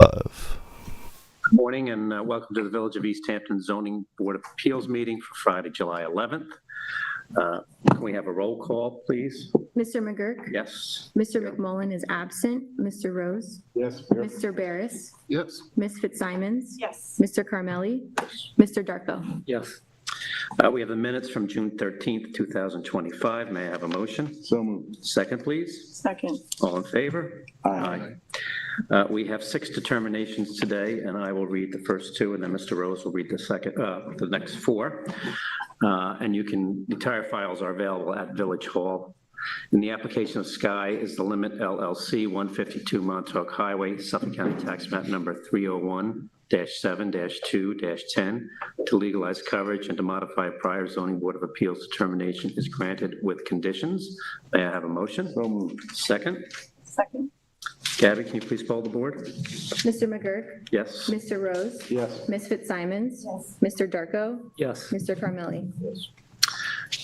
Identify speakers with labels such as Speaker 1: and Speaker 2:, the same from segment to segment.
Speaker 1: above.
Speaker 2: Good Morning and uh, welcome to the Village of East Hampton Zoning Board of Appeals meeting for Friday, July 11th. Uh, Can we have a roll call, please?
Speaker 3: Mr. McGurk?
Speaker 2: Yes?
Speaker 3: Mr. McMullen is absent. Mr. Rose?
Speaker 4: Yes.
Speaker 3: Mr. Barris?
Speaker 4: Yes.
Speaker 3: Ms. Fitzsimons?
Speaker 5: Yes.
Speaker 3: Mr. Carmelli? Mr. Darko?
Speaker 2: Yes. Uh, We have the minutes from June 13th, 2025. May I have a motion?
Speaker 4: So moved.
Speaker 2: Second, please.
Speaker 5: Second.
Speaker 2: All in favor? Uh, We have six determinations today, and I will read the first two, and then Mr. Rose will read the second, uh, the next four. Uh, And you can, the entire files are available at Village Hall. In the application of Sky is the Limit LLC, 152 Montauk Highway, Suffolk County Tax Map Number 301-7-2-10, to legalize coverage and to modify prior zoning board of appeals determination is granted with conditions. May I have a motion?
Speaker 4: So moved.
Speaker 2: Second.
Speaker 5: Second.
Speaker 2: Gabby, can you please poll the board?
Speaker 3: Mr. McGurk?
Speaker 2: Yes?
Speaker 3: Mr. Rose?
Speaker 4: Yes.
Speaker 3: Ms. Fitzsimons?
Speaker 5: Yes.
Speaker 3: Mr. Darko?
Speaker 2: Yes.
Speaker 3: Mr. Carmelli?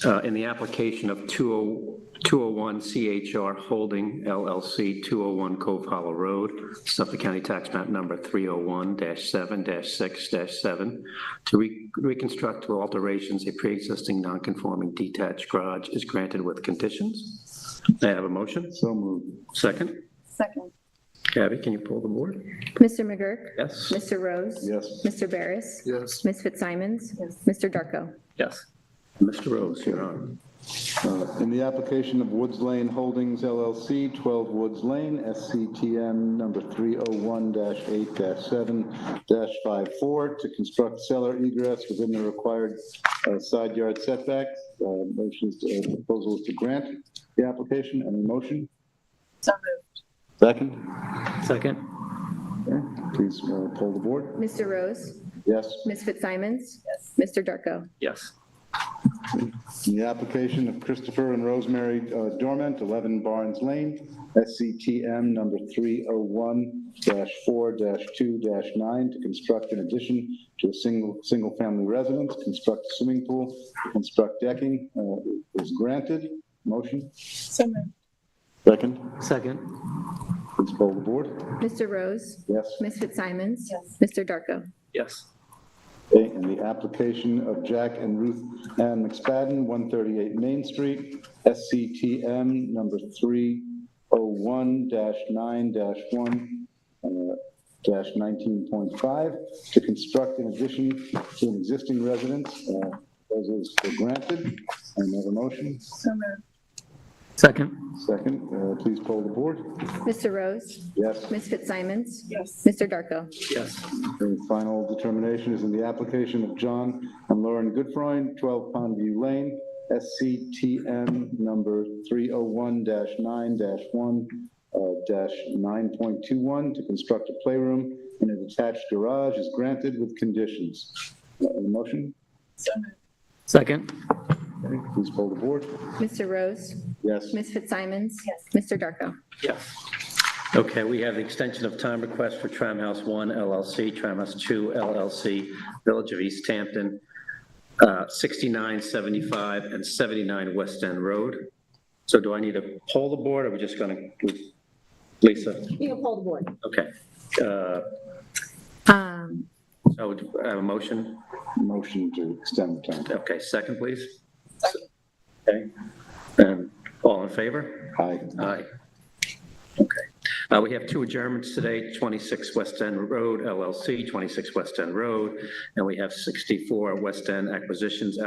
Speaker 2: Uh, In the application of oh, 20 201 CHR Holding LLC, 201 Cove Hollow Road, Suffolk County Tax Map Number 301-7-6-7, to re- reconstruct to alterations a pre-existing non-conforming detached garage is granted with conditions. May I have a motion?
Speaker 4: So moved.
Speaker 2: Second.
Speaker 5: Second.
Speaker 2: Gabby, can you pull the board?
Speaker 3: Mr. McGurk?
Speaker 2: Yes?
Speaker 3: Mr. Rose?
Speaker 4: Yes.
Speaker 3: Mr. Barris?
Speaker 4: Yes.
Speaker 3: Ms. Fitzsimons?
Speaker 5: Yes.
Speaker 3: Mr. Darko?
Speaker 2: Yes. Mr. Rose, you're on.
Speaker 4: Uh, In the application of Woods Lane Holdings LLC, 12 Woods Lane, SCTM number 301-8-7-54, to construct cellar egress within the required uh, side yard setbacks. Uh, Motions, uh, proposals to grant the application. Any motion?
Speaker 5: So moved.
Speaker 4: Second.
Speaker 2: Second.
Speaker 4: Okay. Please uh, poll the board.
Speaker 3: Mr. Rose?
Speaker 4: Yes.
Speaker 3: Ms. Fitzsimons?
Speaker 5: Yes.
Speaker 3: Mr. Darko?
Speaker 2: Yes.
Speaker 4: The application of Christopher and Rosemary uh, Dorment, 11 Barnes Lane, SCTM number 301-4-2-9, to construct in addition to a single, single-family residence, construct a swimming pool, construct decking, uh, is granted. Motion?
Speaker 5: So moved.
Speaker 4: Second.
Speaker 2: Second.
Speaker 4: Please poll the board.
Speaker 3: Mr. Rose?
Speaker 4: Yes.
Speaker 3: Ms. Fitzsimons?
Speaker 5: Yes.
Speaker 3: Mr. Darko?
Speaker 2: Yes.
Speaker 4: Okay, and the application of Jack and Ruth Ann McSpadden, 138 Main Street, SCTM number 301-9-1, uh, dash 19.5, to construct in addition to an existing residence. uh, Those is granted. Another motion.
Speaker 5: So moved.
Speaker 2: Second.
Speaker 4: Second, uh, please poll the board.
Speaker 3: Mr. Rose?
Speaker 4: Yes.
Speaker 3: Ms. Fitzsimons?
Speaker 5: Yes.
Speaker 3: Mr. Darko?
Speaker 2: Yes.
Speaker 4: The final determination is in the application of John and Lauren Goodfrein, 12 Pondview Lane, SCTM number 301-9-1-9.21, uh, to construct a playroom in a detached garage is granted with conditions. Uh, Motion,
Speaker 5: So moved.
Speaker 2: Second.
Speaker 4: Okay, please poll the board.
Speaker 3: Mr. Rose?
Speaker 4: Yes.
Speaker 3: Ms. Fitzsimons?
Speaker 5: Yes.
Speaker 3: Mr. Darko?
Speaker 2: Yes. Okay, we have the extension of time request for Tram House 1 LLC, Tram House 2 LLC, Village of East Hampton, uh, 6975 and 79 West End Road. So do I need to poll the board, or are we just going to, Lisa?
Speaker 6: You can poll the board.
Speaker 2: Okay. Uh,
Speaker 3: Um,
Speaker 2: So do I have a motion?
Speaker 4: Motion to extend the time.
Speaker 2: Okay, second, please.
Speaker 5: Second.
Speaker 2: Okay. And all in favor?
Speaker 4: Aye.
Speaker 2: Aye. Okay. Uh, We have two adjournments today, 26 West End Road LLC, 26 West End Road, and we have 64 West End Acquisitions